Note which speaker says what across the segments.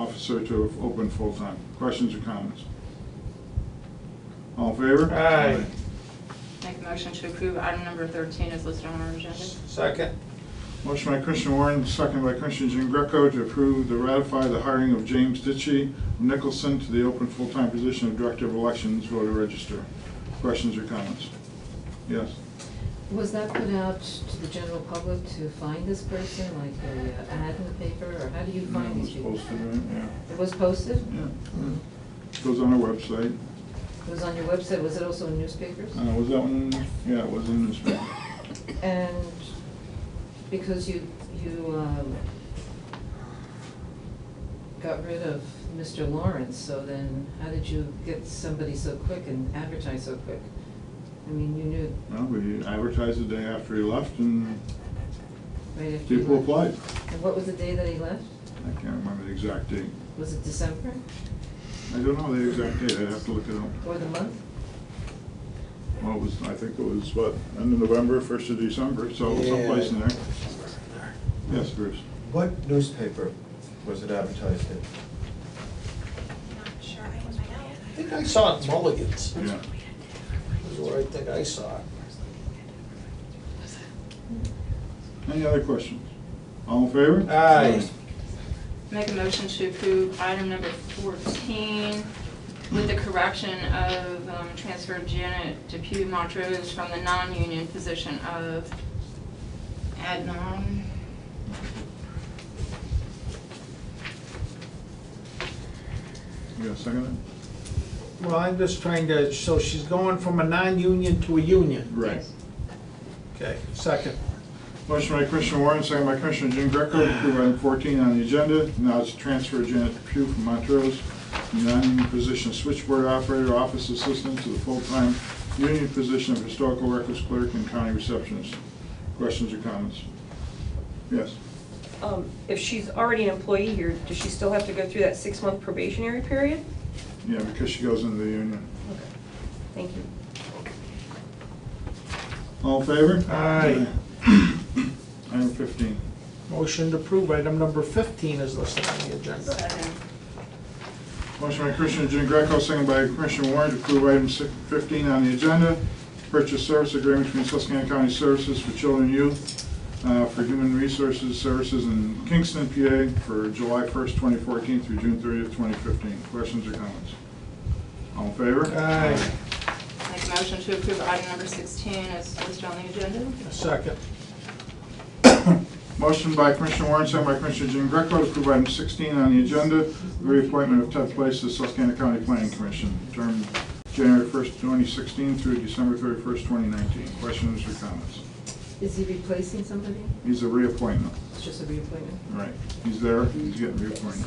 Speaker 1: officer to open full-time. Questions or comments? All in favor?
Speaker 2: Aye.
Speaker 3: Make a motion to approve item number 13 is listed on our agenda.
Speaker 2: Second.
Speaker 1: Motion by Commissioner Warren, second by Commissioner Jean Greco to approve to ratify the hiring of James Ditchy Nicholson to the open full-time position of Director of Elections, voter register. Questions or comments? Yes.
Speaker 4: Was that put out to the general public to find this person, like a uh, ad in the paper, or how do you
Speaker 1: Yeah, it
Speaker 4: find
Speaker 1: was
Speaker 4: these people?
Speaker 1: posted, right?
Speaker 4: It was posted?
Speaker 1: Yeah. Yeah. Goes on our website.
Speaker 4: It was on your website, was it also in newspapers?
Speaker 1: Uh, was that one, yeah, it was in this one.
Speaker 4: And because you, you, um, got rid of Mr. Lawrence, so then how did you get somebody so quick and advertise so quick? I mean, you knew
Speaker 1: Well, we advertised the day after he left and
Speaker 4: right after you
Speaker 1: people
Speaker 4: left.
Speaker 1: applied.
Speaker 4: And what was the day that he left?
Speaker 1: I can't remember the exact date.
Speaker 4: Was it December
Speaker 1: I don't know the exact date, I'd have to look it up.
Speaker 4: or the month?
Speaker 1: Well, it was, I think it was, what, end of November, first of December, so someplace in there. Yes, Bruce.
Speaker 5: What newspaper was it advertised in?
Speaker 6: Not sure, I don't
Speaker 2: I
Speaker 6: know.
Speaker 2: think I saw it Mulligan's,
Speaker 1: Yeah.
Speaker 2: is where I think I saw it.
Speaker 1: Any other questions? All in favor?
Speaker 2: Aye.
Speaker 3: Make a motion to approve item number 14 with the correction of um, transfer of Janet Depew Montrose from the non-union position of Adnan.
Speaker 1: You got a second?
Speaker 2: Well, I'm just trying to, so she's going from a non-union to a union.
Speaker 1: Right.
Speaker 2: Okay, second.
Speaker 1: Motion by Commissioner Warren, second by Commissioner Jean Greco, to approve item 14 on the agenda. Now it's transfer Janet Pugh from Montrose, non-union position switchboard operator, office assistant, to the full-time union position of historical records clerk and county receptionist. Questions or comments? Yes.
Speaker 7: Um, If she's already an employee here, does she still have to go through that six-month probationary period?
Speaker 1: Yeah, because she goes into the union.
Speaker 7: Okay. Thank you.
Speaker 1: All in favor?
Speaker 2: Aye.
Speaker 1: Item 15.
Speaker 2: Motion to approve item number fifteen is listed on the agenda.
Speaker 3: Second.
Speaker 1: Motion by Commissioner Jean Greco, second by Commissioner Warren to approve item si- 15 on the agenda, purchase service agreement between Susquehanna County Services for Children and Youth uh, for Human Resources Services in Kingston, PA for July 1st, 2014 through June 30th, 2015. Questions or comments? All in favor?
Speaker 2: Aye.
Speaker 3: Make a motion to approve item number 16 is listed on the agenda.
Speaker 2: Second.
Speaker 1: Motion by Commissioner Warren, second by Commissioner Jean Greco to approve item 16 on the agenda, the reappointment of Ted Place to the Susquehanna County Planning Commission, term January 1st, 2016 through December 31st, 2019. Questions or comments?
Speaker 4: Is he replacing somebody?
Speaker 1: He's a reappointment.
Speaker 4: It's just a reappointment?
Speaker 1: Right. He's there, he's getting reappointed.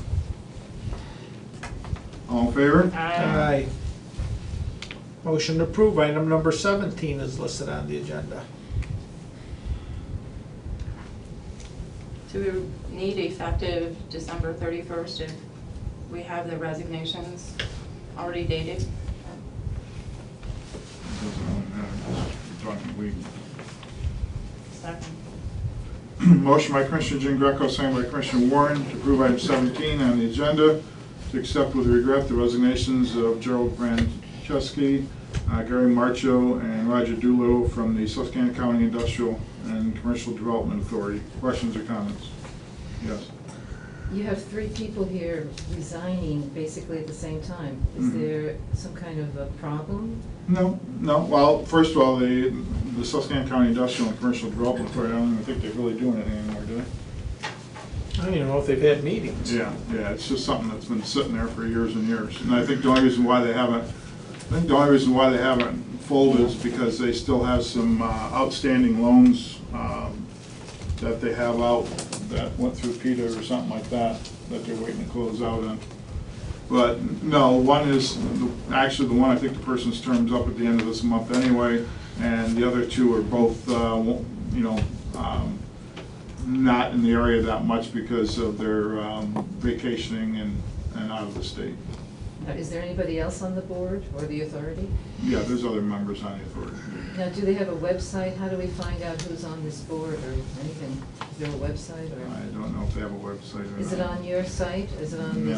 Speaker 1: All in favor?
Speaker 2: Aye. Motion to approve item number seventeen is listed on the agenda.
Speaker 3: Do we need effective December 31st if we have the resignations already dated?
Speaker 1: Doesn't really matter, 'cause we're talking legal.
Speaker 3: Second.
Speaker 1: Motion by Commissioner Jean Greco, second by Commissioner Warren to approve item 17 on the agenda, to accept with regret the resignations of Gerald Franceschi, uh, Gary Marcho, and Roger Dulo from the Susquehanna County Industrial and Commercial Development Authority. Questions or comments? Yes.
Speaker 4: You have three people here resigning basically at the same time. Is
Speaker 1: Mhm.
Speaker 4: there some kind of a problem?
Speaker 1: No, no, well, first of all, the the Susquehanna County Industrial and Commercial Development Authority, I don't even think they really do anything anymore, do they?
Speaker 2: I don't even know if they've had meetings.
Speaker 1: Yeah, yeah, it's just something that's been sitting there for years and years. And I think the only reason why they haven't, I think the only reason why they haven't folded is because they still have some uh, outstanding loans um, that they have out that went through PETA or something like that, that they're waiting to close out on. But, no, one is, actually, the one, I think the person's term's up at the end of this month anyway, and the other two are both, uh, won't- you know, um, not in the area that much because of their um, vacationing and, and out of the state.
Speaker 4: Now, Is there anybody else on the board or the authority?
Speaker 1: Yeah, there's other members on the authority.
Speaker 4: Now, do they have a website? How do we find out who's on this board or anything? Is there a website
Speaker 1: I
Speaker 4: or?
Speaker 1: don't know if they have a website or not.
Speaker 4: Is it on your site? Is it on the
Speaker 1: No.